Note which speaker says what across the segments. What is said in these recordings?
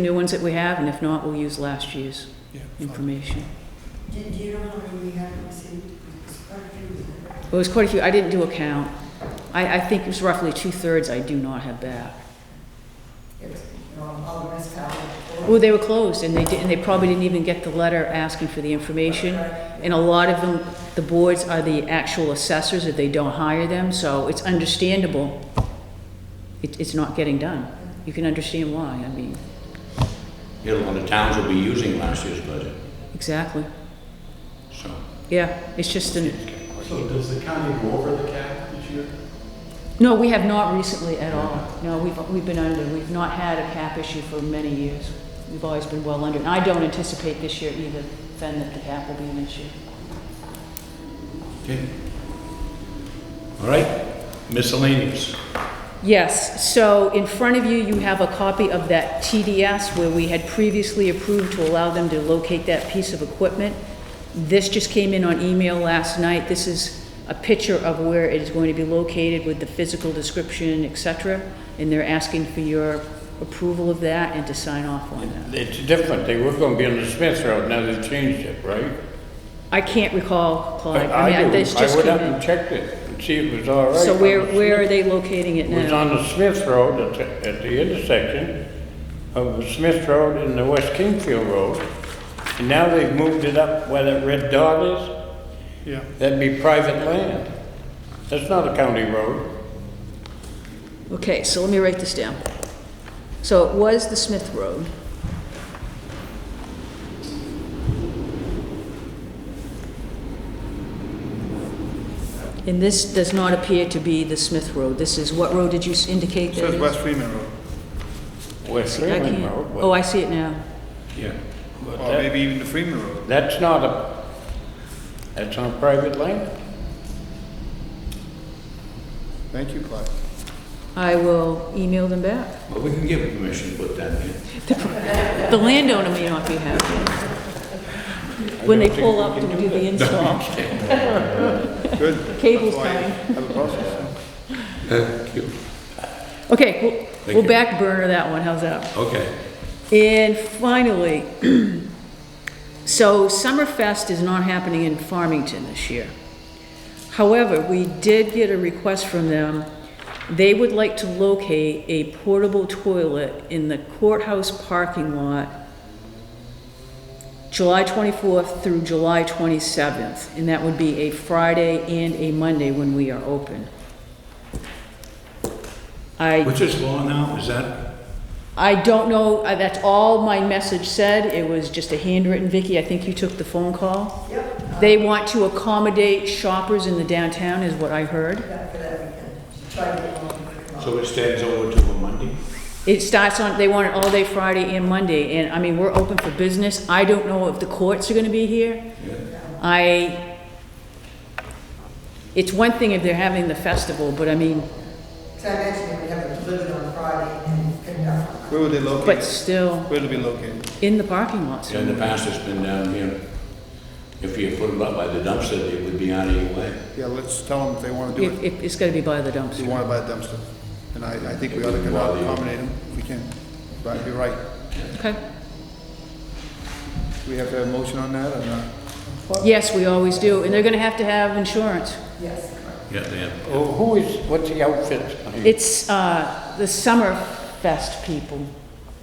Speaker 1: new ones that we have, and if not, we'll use last year's
Speaker 2: Yeah, fine.
Speaker 1: information.
Speaker 3: Do do you know how many we have received? It's quite a few.
Speaker 1: It was quite a few, I didn't do a count. I, I think it was roughly two-thirds I do not have back.
Speaker 3: It's, you know, all the rest out.
Speaker 1: Well, they were closed, and they didn't, they probably didn't even get the letter asking for the information. And a lot of them, the boards are the actual assessors, if they don't hire them, so it's understandable. It, it's not getting done. You can understand why, I mean,
Speaker 4: Yeah, well, the towns will be using last year's budget,
Speaker 1: exactly.
Speaker 4: so.
Speaker 1: Yeah, it's just an,
Speaker 5: So does the county go over the cap each year?
Speaker 1: No, we have not recently at all. No, we've, we've been under, we've not had a cap issue for many years. We've always been well under, and I don't anticipate this year either, Fen, that the cap will be an issue.
Speaker 4: Okay. All right, miscellaneous.
Speaker 1: Yes, so in front of you, you have a copy of that TDS where we had previously approved to allow them to locate that piece of equipment. This just came in on email last night. This is a picture of where it is going to be located with the physical description, et cetera, and they're asking for your approval of that and to sign off on that.
Speaker 6: It's different, they were gonna be on the Smith Road, now they've changed it, right?
Speaker 1: I can't recall, Clyde.
Speaker 6: I
Speaker 1: mean,
Speaker 6: do.
Speaker 1: that's just
Speaker 6: I went up
Speaker 1: kinda-
Speaker 6: and checked it and see if it was all right.
Speaker 1: So
Speaker 6: on
Speaker 1: where,
Speaker 6: the
Speaker 1: where are
Speaker 6: Smith-
Speaker 1: they locating it
Speaker 6: It was
Speaker 1: now?
Speaker 6: on the Smith Road, at the, at the intersection of the Smith Road and the West Kingfield Road. And now they've moved it up where that red dot is,
Speaker 2: Yeah,
Speaker 6: that'd be private land. That's not a county road.
Speaker 1: Okay, so let me write this down. So it was the Smith Road. And this does not appear to be the Smith Road. This is, what road did you s- indicate that
Speaker 2: says
Speaker 1: is?
Speaker 2: West Freeman Road,
Speaker 6: West
Speaker 1: I
Speaker 6: Freeman
Speaker 1: can't-
Speaker 6: Road,
Speaker 1: Oh,
Speaker 6: but
Speaker 1: I see it now.
Speaker 4: Yeah.
Speaker 2: or
Speaker 6: that-
Speaker 2: maybe even the Freeman Road.
Speaker 6: that's not a, that's on private land.
Speaker 2: Thank you, Clyde.
Speaker 1: I will email them back.
Speaker 4: But we can give permission to put that in.
Speaker 1: The landowner may not be happy. When they pull up to do the install.
Speaker 2: Good.
Speaker 1: Cable's
Speaker 2: That's why I
Speaker 1: coming.
Speaker 2: Have a process.
Speaker 1: Okay, we'll,
Speaker 4: Thank
Speaker 1: we'll
Speaker 4: you.
Speaker 1: back burner that one, how's that?
Speaker 4: Okay.
Speaker 1: And finally, so Summerfest is not happening in Farmington this year. However, we did get a request from them. They would like to locate a portable toilet in the courthouse parking lot July 24th through July 27th, and that would be a Friday and a Monday when we are open. I
Speaker 4: What's this law now? Is that,
Speaker 1: I don't know, uh, that's all my message said, it was just a handwritten, Vicky, I think you took the phone call.
Speaker 3: Yep,
Speaker 1: They want to accommodate shoppers in the downtown, is what I heard.
Speaker 3: that for that weekend. She tried to get along with it.
Speaker 4: so it stands over to a Monday?
Speaker 1: It starts on, they want it all day Friday and Monday, and, I mean, we're open for business, I don't know if the courts are gonna be here. I, it's one thing if they're having the festival, but I mean,
Speaker 3: So I mentioned we have a delivery on Friday and conduct.
Speaker 2: Where would they locate?
Speaker 1: but still,
Speaker 2: Where'd it be located?
Speaker 1: in the parking lots.
Speaker 4: In the past, it's been down here. If you put them up by the dumpster, it would be out of your way.
Speaker 2: Yeah, let's tell them if they wanna do
Speaker 1: It,
Speaker 2: it,
Speaker 1: it- it's gotta be by the
Speaker 2: if they
Speaker 1: dumpster.
Speaker 2: wanna buy a dumpster. And I, I think we ought to accommodate them, if we can. But you're right.
Speaker 1: Okay.
Speaker 2: Do we have to have a motion on that or not?
Speaker 1: Yes, we always do, and they're gonna have to have insurance.
Speaker 3: Yes, correct.
Speaker 4: Yeah, they have.
Speaker 6: Oh, Who is, what's the outfit?
Speaker 1: It's uh, the summer fest people.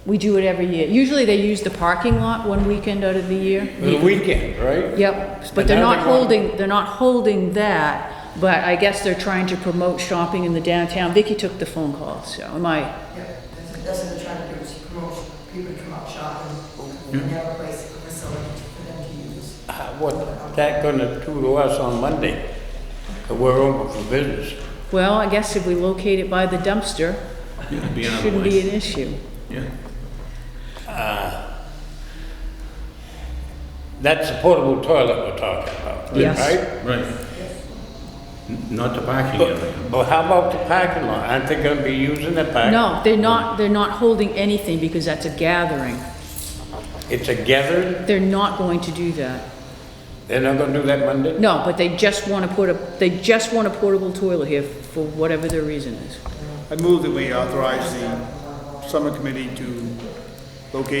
Speaker 1: We do it every year. Usually they use the parking lot one weekend out of the
Speaker 6: The
Speaker 1: year.
Speaker 6: weekend, right?
Speaker 1: Yep, but
Speaker 6: And
Speaker 1: they're
Speaker 6: now
Speaker 1: not
Speaker 6: they want-
Speaker 1: holding, they're not holding that, but I guess they're trying to promote shopping in the downtown. Vicky took the phone call, so am I,
Speaker 3: Yep. That's what- That's what they're trying to do, is promote people to come out shopping. We have a place, a facility for them to use.
Speaker 6: Uh, What that gonna do to us on Monday? 'Cause We're open for business.
Speaker 1: well, I guess if we locate it by the dumpster,
Speaker 4: Yeah, it'd be out of the
Speaker 1: shouldn't be
Speaker 4: way.
Speaker 1: an issue.
Speaker 4: Yeah.
Speaker 6: That's the portable toilet we're talking about,
Speaker 1: Yes.
Speaker 6: right?
Speaker 4: Right. N- Not the parking area.
Speaker 6: But, but how about the parking lot? Aren't they gonna be using the parking?
Speaker 1: No, they're not, they're not holding anything because that's a gathering.
Speaker 6: It's a gathering?
Speaker 1: They're not going to do that.
Speaker 6: They're not gonna do that Monday?
Speaker 1: No, but they just want to put a, they just want a portable toilet here for whatever their reason is.
Speaker 2: I move that we authorize the summer committee to located